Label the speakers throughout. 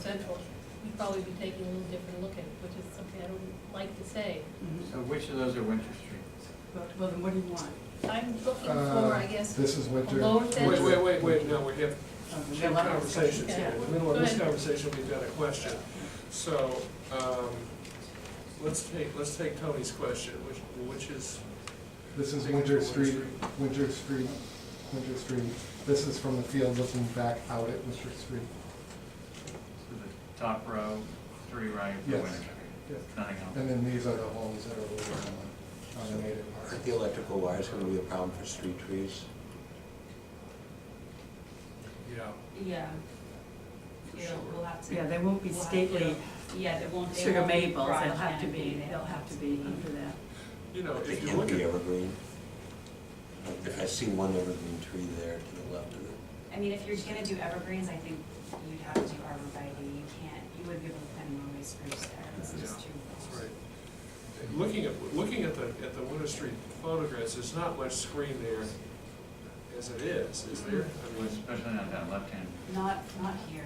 Speaker 1: central, we'd probably be taking a little different look at, it, which is something I don't like to say.
Speaker 2: So which of those are Winter Street?
Speaker 3: Well, well, then what do you want?
Speaker 1: I'm looking for, I
Speaker 4: Uh,
Speaker 1: guess,
Speaker 4: This is
Speaker 1: a
Speaker 4: winter.
Speaker 1: lower
Speaker 5: Wait,
Speaker 1: fence.
Speaker 5: wait, wait, wait, no, we have
Speaker 3: Uh, we
Speaker 5: two
Speaker 3: have a lot of
Speaker 5: conversations
Speaker 3: discussions.
Speaker 5: here.
Speaker 1: Yeah.
Speaker 5: In the middle of this
Speaker 1: Go ahead.
Speaker 5: conversation, we've got a question. So, um, let's take, let's take Tony's question, which, which is.
Speaker 4: This is
Speaker 5: Picture
Speaker 4: Winter
Speaker 5: of
Speaker 4: Street, Winter Street, Winter Street. This is from the field looking back out at Winter Street.
Speaker 2: So the top row, three right for
Speaker 4: Yes.
Speaker 2: Winter Street? Nothing else?
Speaker 4: And then these are the homes that are over on the, on the native
Speaker 6: Aren't the
Speaker 4: park.
Speaker 6: electrical wires gonna be a problem for street trees?
Speaker 5: Yeah.
Speaker 7: Yeah.
Speaker 5: For
Speaker 7: Yeah,
Speaker 5: sure.
Speaker 7: we'll have to.
Speaker 3: Yeah, they won't be
Speaker 7: we'll have
Speaker 3: stately
Speaker 7: to- Yeah, they won't. they
Speaker 3: sugar
Speaker 7: won't be
Speaker 3: maples, they'll
Speaker 7: broad
Speaker 3: have to
Speaker 7: canopy,
Speaker 3: be, they'll have to be under that.
Speaker 5: You know,
Speaker 6: They
Speaker 5: if you
Speaker 6: can't
Speaker 5: look
Speaker 6: be
Speaker 5: at,
Speaker 6: evergreen. I I see one evergreen tree there to the left of it.
Speaker 7: I mean, if you're gonna do evergreens, I think you'd have to do arborvitae, you can't, you wouldn't be able to plant a Norway spruce there, it's
Speaker 5: Yeah,
Speaker 7: just too.
Speaker 5: that's right. Looking at, looking at the, at the Winter Street photographs, there's not much screen there as it is, is there? I mean,
Speaker 2: Especially not that left-hand.
Speaker 7: Not, not here.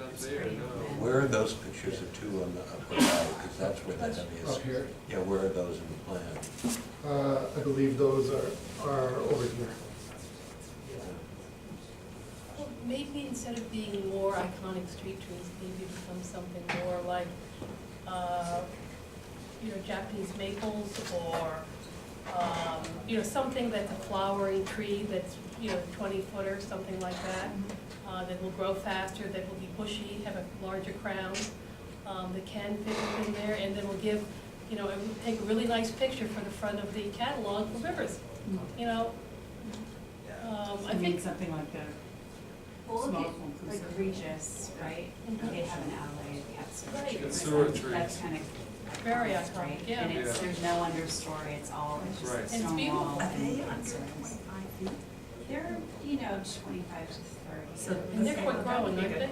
Speaker 5: not
Speaker 7: It's
Speaker 5: there,
Speaker 7: pretty
Speaker 5: no.
Speaker 7: thin.
Speaker 6: Where are those pictures of two on the upper side, because that's where the heaviest.
Speaker 4: Up here.
Speaker 6: Yeah, where are those in the plan?
Speaker 4: Uh, I believe those are, are over here.
Speaker 1: Well, Maybe instead of being more iconic street trees, maybe become something more like, uh, you know, Japanese maples or, um, you know, something that's a flowering tree that's, you know, twenty footer, something like that. Uh, that will grow faster, that will be bushy, have a larger crown, um, that can fit within there and then will give, you know, it will take a really nice picture for the front of the catalog for Rivers, you know? Um, I
Speaker 3: I mean,
Speaker 1: think
Speaker 3: something like that.
Speaker 7: Well, look
Speaker 3: Small
Speaker 7: at,
Speaker 3: home
Speaker 7: like
Speaker 3: conservatory.
Speaker 7: Regis, right?
Speaker 1: Mhm.
Speaker 7: They have an alley, they have
Speaker 1: Right.
Speaker 7: sewer
Speaker 1: It's
Speaker 7: trees.
Speaker 5: sewer
Speaker 7: That's-
Speaker 5: trees.
Speaker 7: That's kind of.
Speaker 1: Very iconic,
Speaker 7: right?
Speaker 1: yeah.
Speaker 7: And it's,
Speaker 5: Yeah.
Speaker 7: there's no understory, it's all, it's just
Speaker 5: Right.
Speaker 7: a
Speaker 5: And
Speaker 1: it's
Speaker 7: stone
Speaker 1: beautiful.
Speaker 7: wall.
Speaker 1: Are
Speaker 7: and
Speaker 3: they
Speaker 7: concerns.
Speaker 3: feet?
Speaker 7: They're, you know, twenty-five to thirty.
Speaker 3: So-
Speaker 1: And they're quick growing, aren't they?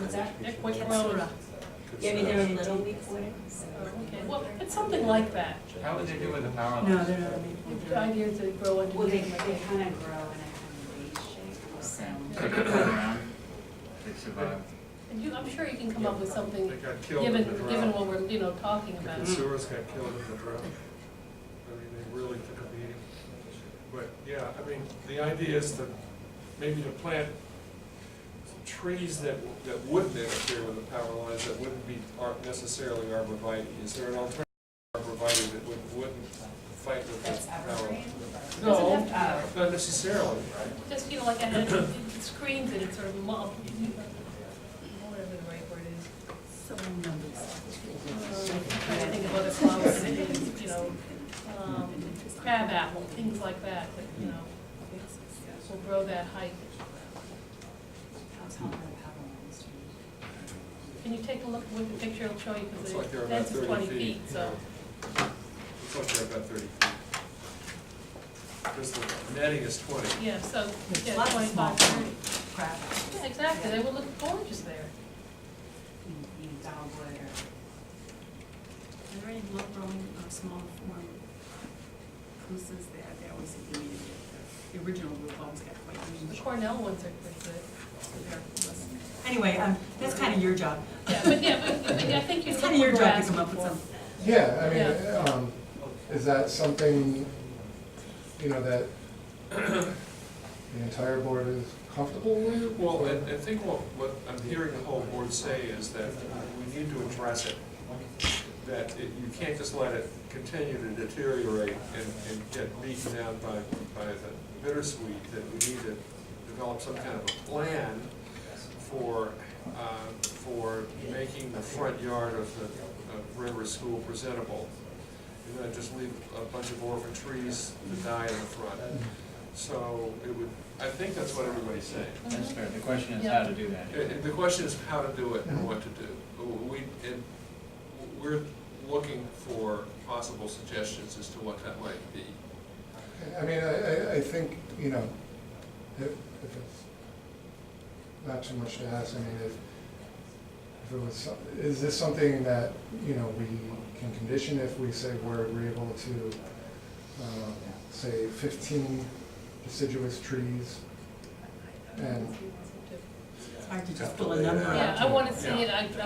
Speaker 7: What's
Speaker 6: kind of
Speaker 7: that?
Speaker 6: trees?
Speaker 1: They're quick growing. Oh,
Speaker 7: Yeah, I mean, they're little weekwood.
Speaker 1: Okay, well, it's something like that.
Speaker 2: How would they do with the power lines?
Speaker 3: No, they're not
Speaker 1: It's
Speaker 3: maple.
Speaker 1: The idea to grow
Speaker 7: Well, they,
Speaker 1: underneath.
Speaker 7: they
Speaker 1: like
Speaker 7: kind of grow in a kind of V shape, so.
Speaker 2: Okay, so they turn around, they survive.
Speaker 1: And you, I'm sure you can come up with something,
Speaker 5: They got killed in
Speaker 1: given,
Speaker 5: the drought.
Speaker 1: given what we're, you know, talking
Speaker 5: The
Speaker 1: about.
Speaker 5: consumers got killed in the drought. I mean, they really took a beating. But, yeah, I mean, the idea is to, maybe to plant trees that, that wouldn't interfere with the power lines, that wouldn't be ar- necessarily arborvitae. Is there an alternative arborvitae that would- wouldn't fight with
Speaker 7: That's
Speaker 5: the power?
Speaker 7: evergreen.
Speaker 1: Doesn't
Speaker 5: No,
Speaker 1: have
Speaker 7: Uh,
Speaker 5: not necessarily.
Speaker 1: Just, you know, like I had, it screens and it's sort of mul, whatever the right word is. Um, Trying to think of other flowers, I think it's, you know, um, crab apple, things like that, that, you know, will grow that height.
Speaker 7: That's how the power lines do.
Speaker 1: Can you take a look, with the picture, it'll show you,
Speaker 5: Looks
Speaker 1: because
Speaker 5: like
Speaker 1: the
Speaker 5: they're about
Speaker 1: fence is
Speaker 5: thirty
Speaker 1: twenty
Speaker 5: feet.
Speaker 1: feet, so.
Speaker 5: yeah. Looks like they're about thirty feet. Because the netting is twenty.
Speaker 1: Yeah, so, yeah,
Speaker 3: Lots of small
Speaker 1: twenty-five, thirty.
Speaker 3: Crap.
Speaker 1: Yeah, exactly, they would look gorgeous there.
Speaker 7: You you know, dogwood or,
Speaker 8: Are there any low-growing or uh, small form spruces that, that always seem to me that the the original root bones got quite
Speaker 1: The
Speaker 8: huge?
Speaker 1: Cornell ones are pretty good.
Speaker 8: Anyway, um, that's kind of your job.
Speaker 1: Yeah, but yeah, but, but I think you
Speaker 8: It's
Speaker 1: look
Speaker 8: kind of your
Speaker 1: what we're
Speaker 8: job to come
Speaker 1: asking
Speaker 8: up with
Speaker 1: for.
Speaker 8: some.
Speaker 4: Yeah,
Speaker 1: Yeah.
Speaker 4: I mean, um, is that something, you know, that the entire board is comfortable with?
Speaker 5: Well,
Speaker 4: Or-
Speaker 5: I, I think what, what I'm hearing the whole board say is that we need to address it. That it- you can't just let it continue to deteriorate and, and get beaten down by, by the bittersweet, that we need to develop some kind of a plan for, uh, for making the front yard of the, of River School presentable. And not just leave a bunch of orphan trees to die in the front. So it would, I think that's what everybody's saying.
Speaker 2: That's fair. The question is how to do that.
Speaker 5: Uh, The question is how to do it and what to do. We, and we're looking for possible suggestions as to what that might be.
Speaker 4: I mean, I, I, I think, you know, if, if it's not too much to ask, I mean, if, if it was, some- is this something that, you know, we can condition if we say we're agreeable to, um, say fifteen deciduous trees? And,
Speaker 1: Yeah.
Speaker 5: hard to just
Speaker 9: Have to
Speaker 5: pull a
Speaker 9: lay it
Speaker 5: number
Speaker 9: out.
Speaker 5: out.
Speaker 7: Yeah, I wanna see it, I,